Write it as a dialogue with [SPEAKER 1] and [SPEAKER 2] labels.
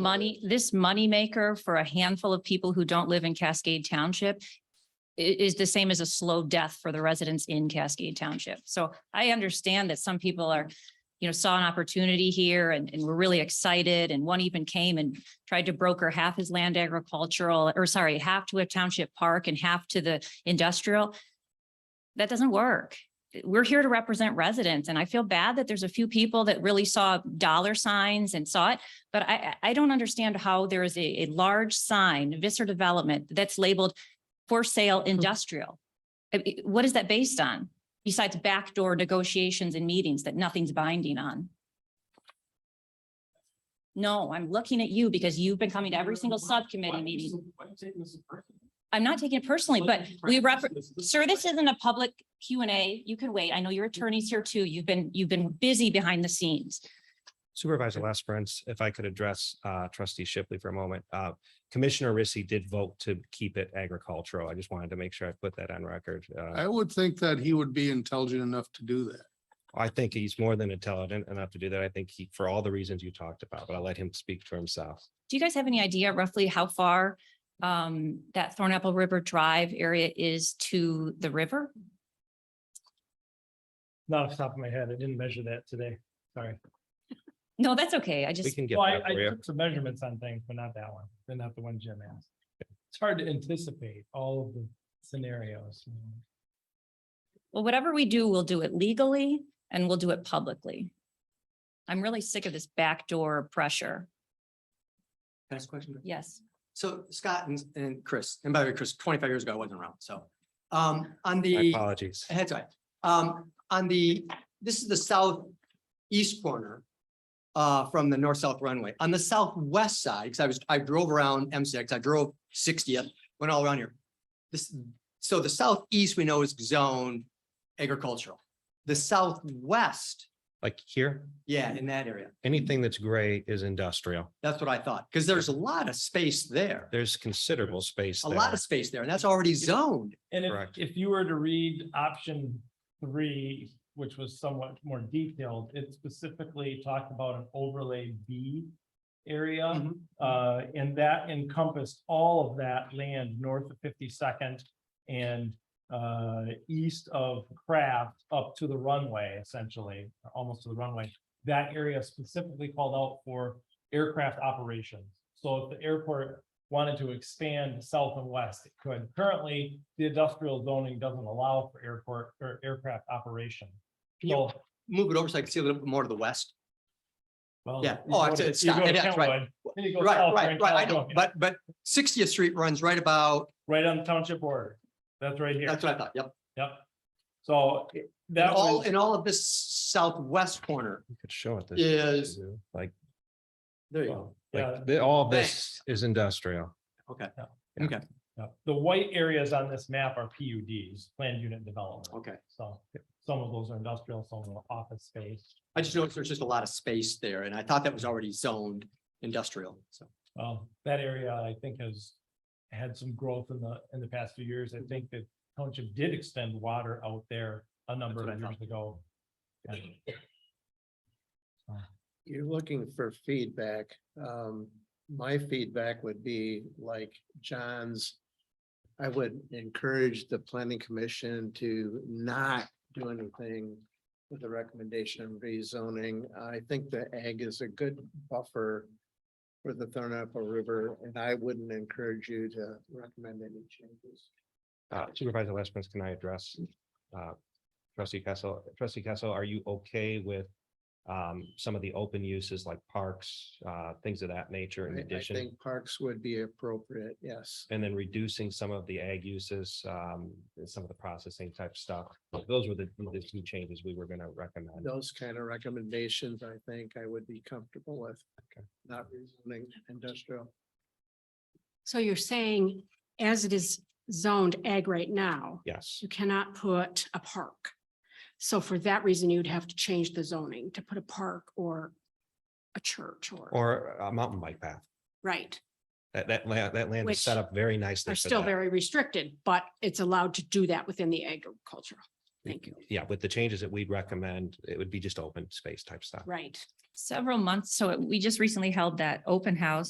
[SPEAKER 1] money, this moneymaker for a handful of people who don't live in Cascade Township i- is the same as a slow death for the residents in Cascade Township. So I understand that some people are, you know, saw an opportunity here and, and were really excited. And one even came and tried to broker half his land agricultural, or sorry, half to a township park and half to the industrial. That doesn't work. We're here to represent residents and I feel bad that there's a few people that really saw dollar signs and saw it. But I, I I don't understand how there is a, a large sign, Visser Development, that's labeled for sale industrial. I- I- What is that based on? Besides backdoor negotiations and meetings that nothing's binding on? No, I'm looking at you because you've been coming to every single subcommittee meeting. I'm not taking it personally, but we refer, Sir, this isn't a public Q and A. You can wait. I know your attorney's here too. You've been, you've been busy behind the scenes.
[SPEAKER 2] Supervisor Lesperance, if I could address uh, trustee Shipley for a moment. Uh, Commissioner Rissy did vote to keep it agricultural. I just wanted to make sure I put that on record. Uh,
[SPEAKER 3] I would think that he would be intelligent enough to do that.
[SPEAKER 2] I think he's more than intelligent enough to do that. I think he, for all the reasons you talked about, but I'll let him speak for himself.
[SPEAKER 1] Do you guys have any idea roughly how far um that Thornapple River Drive area is to the river?
[SPEAKER 4] Not off the top of my head. I didn't measure that today. Sorry.
[SPEAKER 1] No, that's okay. I
[SPEAKER 2] We
[SPEAKER 1] just,
[SPEAKER 2] can get
[SPEAKER 4] Well, I,
[SPEAKER 2] that for
[SPEAKER 4] I
[SPEAKER 2] you.
[SPEAKER 4] took some measurements on things, but not that one. They're not the one Jim asked. It's hard to anticipate all of the scenarios. you know.
[SPEAKER 1] well, whatever we do, we'll do it legally and we'll do it publicly. I'm really sick of this backdoor pressure.
[SPEAKER 5] Next question.
[SPEAKER 1] Yes.
[SPEAKER 5] So Scott and, and Chris, and by the way, Chris, twenty-five years ago, I wasn't around, so, um, on
[SPEAKER 2] My
[SPEAKER 5] the,
[SPEAKER 2] apologies.
[SPEAKER 5] that's all right. Um, on the, this is the southeast corner uh, from the north-south runway. On the southwest side, because I was, I drove around M six, I drove sixtieth, went all around here. This, so the southeast we know is zoned agricultural. The southwest,
[SPEAKER 2] Like here,
[SPEAKER 5] yeah, in that area.
[SPEAKER 2] anything that's gray is industrial.
[SPEAKER 5] That's what I thought, because there's a lot of space there,
[SPEAKER 2] There's considerable space.
[SPEAKER 5] a lot
[SPEAKER 2] there.
[SPEAKER 5] of space there, and that's already zoned.
[SPEAKER 4] And if,
[SPEAKER 2] Correct.
[SPEAKER 4] if you were to read option three, which was somewhat more detailed, it specifically talked about an overlay B area.
[SPEAKER 5] Mhm.
[SPEAKER 4] Uh, and that encompassed all of that land north of fifty-second and, uh, east of Craft up to the runway, essentially, almost to the runway. That area specifically called out for aircraft operations. So if the airport wanted to expand south and west, it could. Currently, the industrial zoning doesn't allow for airport or aircraft operation.
[SPEAKER 5] Can you
[SPEAKER 4] So,
[SPEAKER 5] move it over so I can see a little bit more to the west?
[SPEAKER 4] well.
[SPEAKER 5] Yeah.
[SPEAKER 4] you
[SPEAKER 5] Oh,
[SPEAKER 4] go
[SPEAKER 5] it's-
[SPEAKER 4] to-
[SPEAKER 5] it's
[SPEAKER 4] you
[SPEAKER 5] Scott-
[SPEAKER 4] go to
[SPEAKER 5] that's right.
[SPEAKER 4] Kentwood, then you go
[SPEAKER 5] Right,
[SPEAKER 4] south, you're
[SPEAKER 5] right,
[SPEAKER 4] in
[SPEAKER 5] right. I know,
[SPEAKER 4] California.
[SPEAKER 5] but, but Sixtieth Street runs right about,
[SPEAKER 4] Right on the township border. That's right here.
[SPEAKER 5] that's what I thought, yep.
[SPEAKER 4] Yep. So it-
[SPEAKER 5] And
[SPEAKER 4] that
[SPEAKER 5] all,
[SPEAKER 4] was,
[SPEAKER 5] and all of this southwest corner
[SPEAKER 2] You could show it. this,
[SPEAKER 5] is,
[SPEAKER 2] Like,
[SPEAKER 5] there you go.
[SPEAKER 2] like,
[SPEAKER 4] yeah,
[SPEAKER 2] the- all of this
[SPEAKER 5] Thanks.
[SPEAKER 2] is industrial.
[SPEAKER 4] yeah. the white areas on this map are PUDs, planned unit development.
[SPEAKER 5] Okay.
[SPEAKER 4] So some of those are industrial, some of them are office space.
[SPEAKER 5] I just noticed there's just a lot of space there and I thought that was already zoned industrial, so.
[SPEAKER 4] Well, Um, that area, I think, has had some growth in the, in the past few years.
[SPEAKER 5] Mm-hmm.
[SPEAKER 4] I think that township did extend water out there a number
[SPEAKER 5] That's
[SPEAKER 4] of
[SPEAKER 5] what I
[SPEAKER 4] years ago. And
[SPEAKER 6] you're looking for feedback. Um, my feedback would be like John's. I would encourage the planning commission to not do anything with the recommendation of rezoning. I think the ag is a good buffer for the Thornapple River, and I wouldn't encourage you to recommend any changes.
[SPEAKER 2] Uh, Supervisor Lesperance, can I address? uh, Trustee Kessel, trustee Kessel, are you okay with um, some of the open uses like parks, uh, things of that nature in
[SPEAKER 6] I- I
[SPEAKER 2] addition?
[SPEAKER 6] think parks would be appropriate, yes.
[SPEAKER 2] And then reducing some of the ag uses, um, and some of the processing type stuff. Those were the, the two changes we were gonna recommend.
[SPEAKER 6] Those kind of recommendations, I think I would be comfortable with.
[SPEAKER 2] Okay.
[SPEAKER 6] Not rezoning industrial.
[SPEAKER 7] So you're saying as it is zoned ag right now,
[SPEAKER 2] Yes,
[SPEAKER 7] you cannot put a park. So for that reason, you'd have to change the zoning to put a park or a church or,
[SPEAKER 2] or a mountain bike path.
[SPEAKER 7] right,
[SPEAKER 2] That, that land, that land is set
[SPEAKER 7] Which
[SPEAKER 2] up very nicely.
[SPEAKER 7] are
[SPEAKER 2] for
[SPEAKER 7] still
[SPEAKER 2] that.
[SPEAKER 7] very restricted, but it's allowed to do that within the agricultural. Thank you.
[SPEAKER 2] Yeah, with the changes that we'd recommend, it would be just open space type stuff.
[SPEAKER 7] Right.
[SPEAKER 1] Several months, so we just recently held that open house